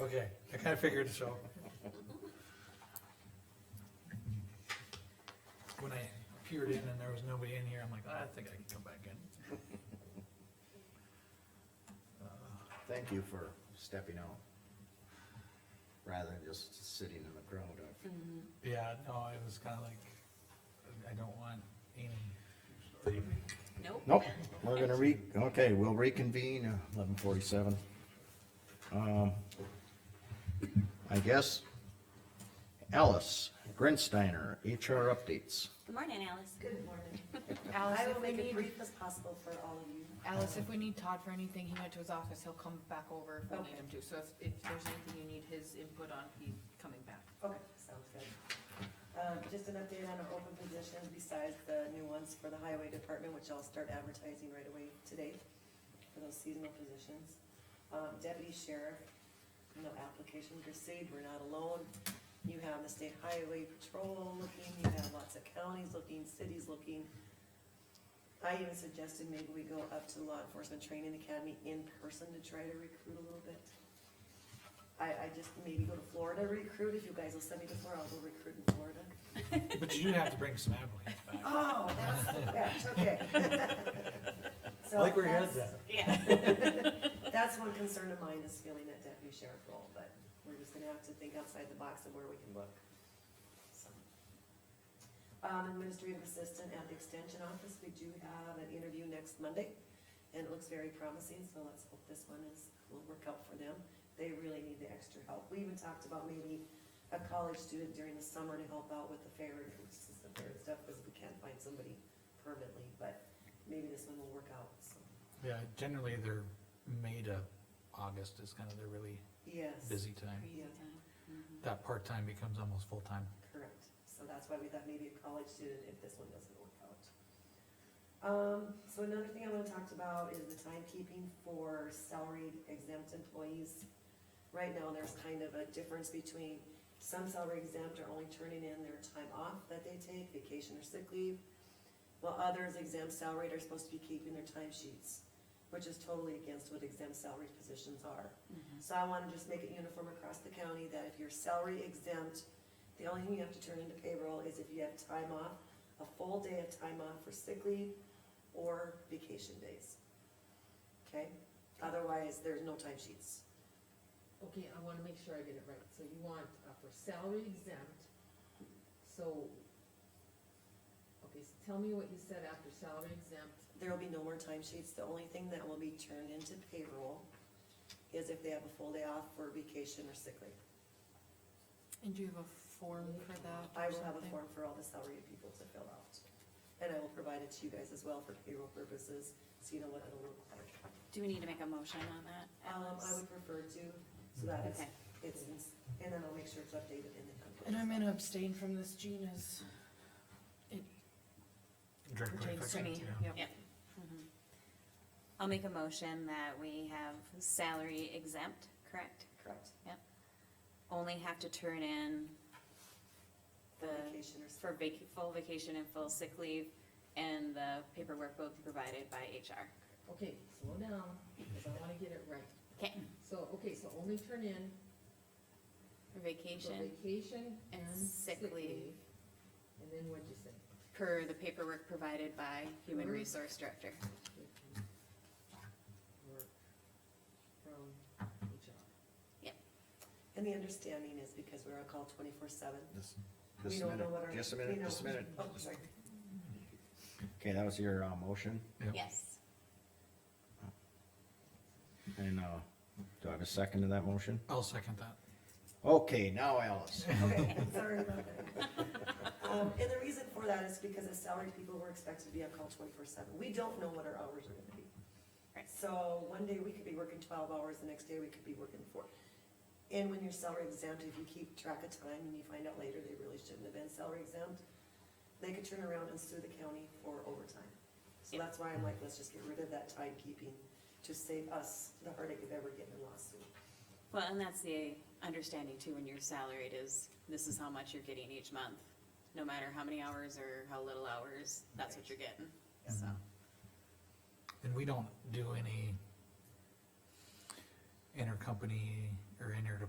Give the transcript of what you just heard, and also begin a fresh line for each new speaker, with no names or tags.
Okay, I kinda figured so. When I peered in and there was nobody in here, I'm like, "Ah, I think I can come back in.
Thank you for stepping out. Rather than just sitting in the crowd of,
Yeah, no, it was kinda like, I don't want any leaving.
Nope.
nope, we're gonna re, okay, we'll reconvene, uh, eleven forty-seven. Um, I guess, Alice Grinsteiner, HR updates.
Good morning, Alice.
Good morning.
Alice,
I
if
will
we
make it
need,
brief as possible for all of you.
Alice, if we need Todd for anything, he went to his office, he'll come back over if we
Okay.
need him to, so if, if there's anything you need his input on, he's coming back.
Okay, sounds good. Um, just an update on our open positions besides the new ones for the highway department, which I'll start advertising right away today for those seasonal positions. Um, deputy sheriff, no application received, we're not alone. You have the state highway patrol looking, you have lots of counties looking, cities looking. I even suggested maybe we go up to the law enforcement training academy in person to try to recruit a little bit. I, I just maybe go to Florida recruit, if you guys will send me to Florida, I'll go recruit in Florida.
But you do have to bring some applicants back.
Oh, that's, that's okay. Oh,
I like where your head's at.
Yeah.
That's one concern of mine is filling that deputy sheriff role, but we're just gonna have to think outside the box of where we can look. So. Um, administrative assistant at the extension office, we do have an interview next Monday, and it looks very promising, so let's hope this one is, will work out for them. They really need the extra help. We even talked about maybe a college student during the summer to help out with the fair and just some fair stuff, because we can't find somebody permanently, but maybe this one will work out, so,
Yeah, generally they're May to August is kinda their really
yes.
busy time.
Crazy time.
That part-time becomes almost full-time.
Correct, so that's why we thought maybe a college student if this one doesn't work out. Um, so another thing I wanna talk about is the timekeeping for salaried exempt employees. Right now, there's kind of a difference between some salary exempt are only turning in their time off that they take, vacation or sick leave. While others exempt salaried are supposed to be keeping their time sheets, which is totally against what exempt salaried positions are. So I wanna just make it uniform across the county that if you're salary exempt, the only thing you have to turn into payroll is if you have time off, a full day of time off for sick leave or vacation days. Okay? Otherwise, there's no time sheets.
Okay, I wanna make sure I get it right, so you want uh, for salary exempt, so, okay, so tell me what you said after salary exempt,
There will be no more time sheets. The only thing that will be turned into payroll is if they have a full day off for vacation or sick leave.
And do you have a form for that
I will have a form for all the salaried people to fill out. And I will provide it to you guys as well for payroll purposes, so you know what it'll look like.
Do we need to make a motion on that?
Um, I
Alex?
would prefer to, so that it's,
Okay.
it's, in- and then I'll make sure it's updated in the template.
And I'm gonna abstain from this, Gina's
Directly
pertains to
affected,
me,
yeah.
yep.
Yeah.
Mm-hmm.
Mhm. I'll make a motion that we have salary exempt, correct?
Correct.
Only have to turn in the,
Vacation or
for vac, full vacation and full sick leave, and the paperwork will be provided by HR.
okay, slow down, cause I wanna get it right.
'Kay.
So, okay, so only turn in
For
for
vacation,
vacation and sick leave, and then what'd you say?
per the paperwork provided by Human
Mm-hmm.
Mhm.
Resource Director.
Work from HR.
And the understanding is because we're on call twenty-four seven,
Just
we
just a
don't know
minute,
what our.
just a
we
minute,
know-
just a minute.
Oh, sorry.
Okay, that was your, uh, motion,
Yep.
Yes.
and, uh, do I have a second to that motion?
I'll second that.
Okay, now Alice.
Okay, sorry about that. Um, and the reason for that is because as salaried people, we're expected to be on call twenty-four seven. We don't know what our hours are gonna be.
Right.
So one day we could be working twelve hours, the next day we could be working four. And when you're salary exempt, if you keep track of time and you find out later they really shouldn't have been salary exempt, they could turn around and sue the county for overtime. So
Yeah.
that's why I'm like, let's just get rid of that timekeeping to save us the heartache of ever getting a lawsuit.
Well, and that's the understanding too, when you're salaried is, this is how much you're getting each month. No matter how many hours or how little hours, that's what you're getting, so.
And we don't do any intercompany or inter